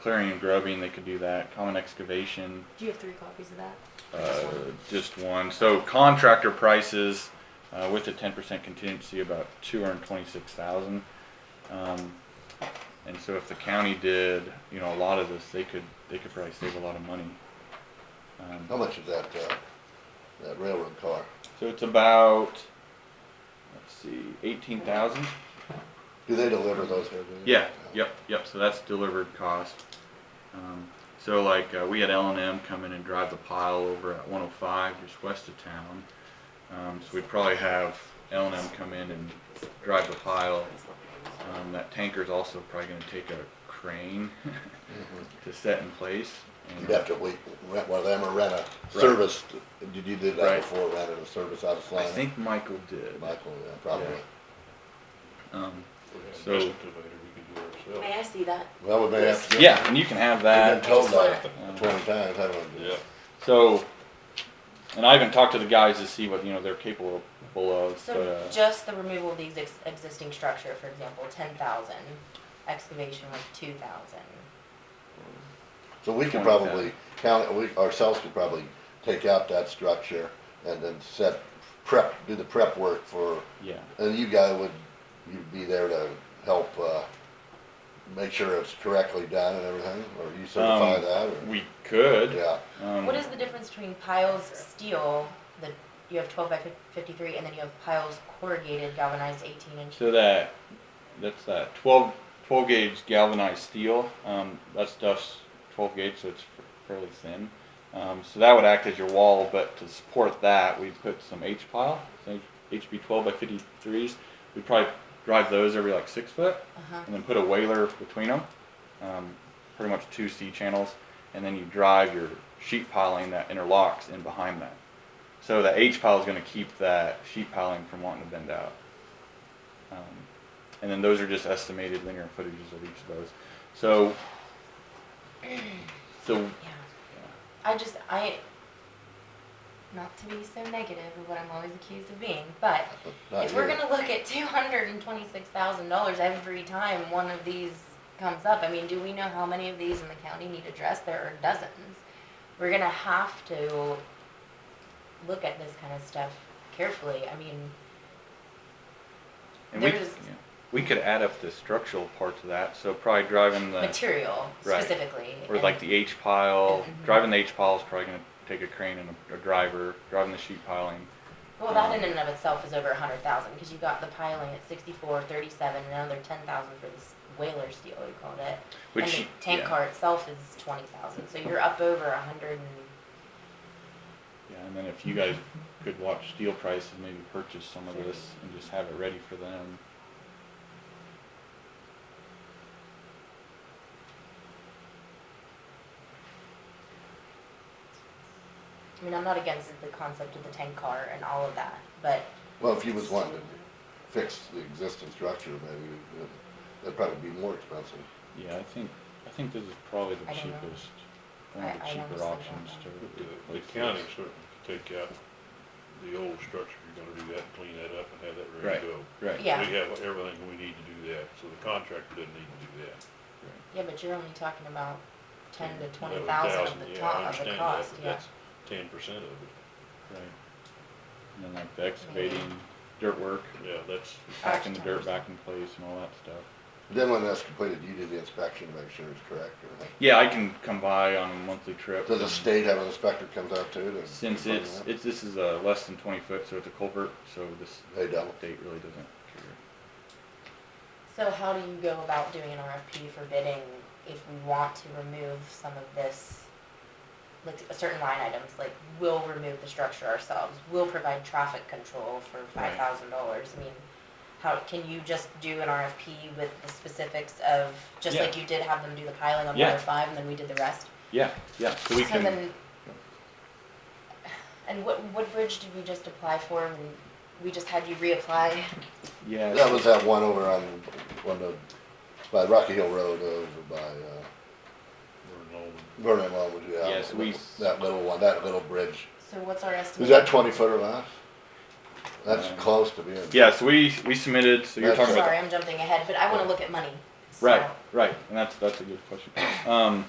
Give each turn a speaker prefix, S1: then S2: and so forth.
S1: clearing and grubbing, they could do that. Common excavation,
S2: Do you have three copies of that?
S1: uh, just one. So contractor prices, uh, with a ten percent contingency, about two hundred twenty-six thousand. Um, and so if the county did, you know, a lot of this, they could, they could probably save a lot of money. Um,
S3: How much is that, uh, that railroad car?
S1: so it's about, let's see, eighteen thousand?
S3: Do they deliver those every? year?
S1: Yeah, yep, yep, so that's delivered cost. Um, so like, uh, we had L and M come in and drive the pile over at one oh five, just west of town. Um, so we'd probably have L and M come in and drive the pile. Um, that tanker's also probably gonna take a crane to set in place. and-
S3: Mm-hmm. You'd have to wait, rent one of them or rent a service, did you do
S1: Right.
S3: that before, rented a service out of
S1: I
S3: Slime?
S1: think Michael did.
S3: Michael, yeah, probably.
S1: Yeah. Um, So-
S4: Investigator, we could do it
S2: May
S4: ourselves.
S2: I see that?
S3: Well, we may have to.
S1: yeah, and you can have that.
S3: We've been told that
S1: Uh,
S3: twenty times, haven't we?
S4: Yeah,
S1: So, and I haven't talked to the guys to see what, you know, they're capable of, but,
S5: So
S1: uh,
S5: just the removal of these ex- existing structure, for example, ten thousand, excavation was two thousand.
S3: So we could
S1: 20,000.
S3: probably, county, we, ourselves could probably take out that structure and then set, prep, do the prep work for,
S1: yeah,
S3: and you guy would, you'd be there to help, uh, make sure it's correctly done and everything, or you certify
S1: Um,
S3: that, or?
S1: we could.
S3: Yeah,
S1: um,
S5: What is the difference between piles steel, that you have twelve by fif- fifty-three, and then you have piles corrugated galvanized eighteen inch?
S1: So that, that's that 12, 12 gauge galvanized steel, um, that stuff's twelve gauge, so it's fairly thin. Um, so that would act as your wall, but to support that, we put some H pile, some HB twelve by fifty-threes. We'd probably drive those every like six foot.
S5: Uh-huh,
S1: and then put a whaler between them, um, pretty much two C channels, and then you drive your sheet piling that interlocks in behind that. So the H pile is going to keep that sheet piling from wanting to bend out. Um, and then those are just estimated linear footages of each of those. So, so
S5: yeah. I just, I, not to be so negative of what I'm always accused of being, but
S3: not
S5: If we're
S3: you.
S5: gonna look at two hundred and twenty-six thousand dollars every time one of these comes up, I mean, do we know how many of these in the county need addressed? There are dozens. We're gonna have to look at this kind of stuff carefully. I mean,
S1: and we,
S5: There's-
S1: yeah. we could add up the structural parts of that. So probably driving the
S5: material
S1: Uh, Right.
S5: specifically.
S1: Or like
S5: and-
S1: the H pile,
S5: Mhm.
S1: driving the H pile is probably gonna take a crane and a, a driver, driving the sheet piling.
S5: Well,
S1: um,
S5: that in and of itself is over a hundred thousand, because you got the piling at sixty-four, thirty-seven, and another ten thousand for this whaler steel, you called it. And
S1: Which
S5: the tank
S1: yeah,
S5: car itself is twenty thousand, so you're up over a hundred and
S1: Yeah, and then if you guys could watch steel prices, maybe purchase some of this and just have it ready for them.
S5: I mean, I'm not against the concept of the tank car and all of that, but
S3: Well, if you was wanting to fix the existing structure, maybe, we could- that'd probably be more expensive.
S1: Yeah, I think, I think this is probably the
S5: I don't know.
S1: cheapest, one of
S5: I-
S1: the
S5: I
S1: cheaper
S5: honestly
S1: options
S5: don't
S1: to.
S4: the, the
S1: replace
S4: county
S1: this.
S4: certainly could take out the old structure, you're gonna do that, and clean that up and have that
S1: Right,
S4: ready to go.
S1: right.
S5: Yeah.
S4: We have everything we need to do that, so the contractor doesn't need to do that.
S5: yeah, but you're only talking about ten to twenty
S4: Eleven
S5: thousand of the
S4: yeah, I
S5: top of the
S4: understand that,
S5: cost,
S4: but
S5: yeah.
S4: that's Ten percent of it,
S1: Right. And then like the excavating, dirt work,
S4: yeah, that's,
S1: packing the dirt
S5: Architects.
S1: back in place and all that stuff.
S3: Then when that's completed, you do the inspection, make sure it's correct, or,
S1: Yeah, I can come by on a monthly trip.
S3: does the
S1: and-
S3: state have an inspector comes out too? to-
S1: Since it's, it's, this is a less than twenty foot, so it's a culvert, so this
S3: They don't.
S1: update really doesn't care.
S5: So how do you go about doing an RFP for bidding if we want to remove some of this, like certain line items, like we'll remove the structure ourselves, we'll provide traffic control for
S1: Right.
S5: five thousand dollars, I mean, how, can you just do an RFP with the specifics of, just
S1: Yeah.
S5: like you did have them do the piling on
S1: Yeah.
S5: one oh five and then we did the rest?
S1: Yeah, yeah, so we
S5: So
S1: can,
S5: then, and what, what bridge did we just apply for when we just had you reapply?
S1: yeah,
S3: That
S1: so-
S3: was that one over on, one of, by Rocky Hill Road, over by, uh,
S4: we're in all,
S3: Vernon Longwood, yeah.
S1: Yes, we-
S3: That little one, that little bridge,
S5: So what's our estimate?
S3: is that twenty foot or less? That's
S1: Um,
S3: close to being.
S1: yeah, so we, we submitted, so you're
S3: That's-
S1: talking about,
S5: Sorry, I'm jumping ahead, but I wanna look at money. So,
S1: right, right, and that's, that's a good question. Um,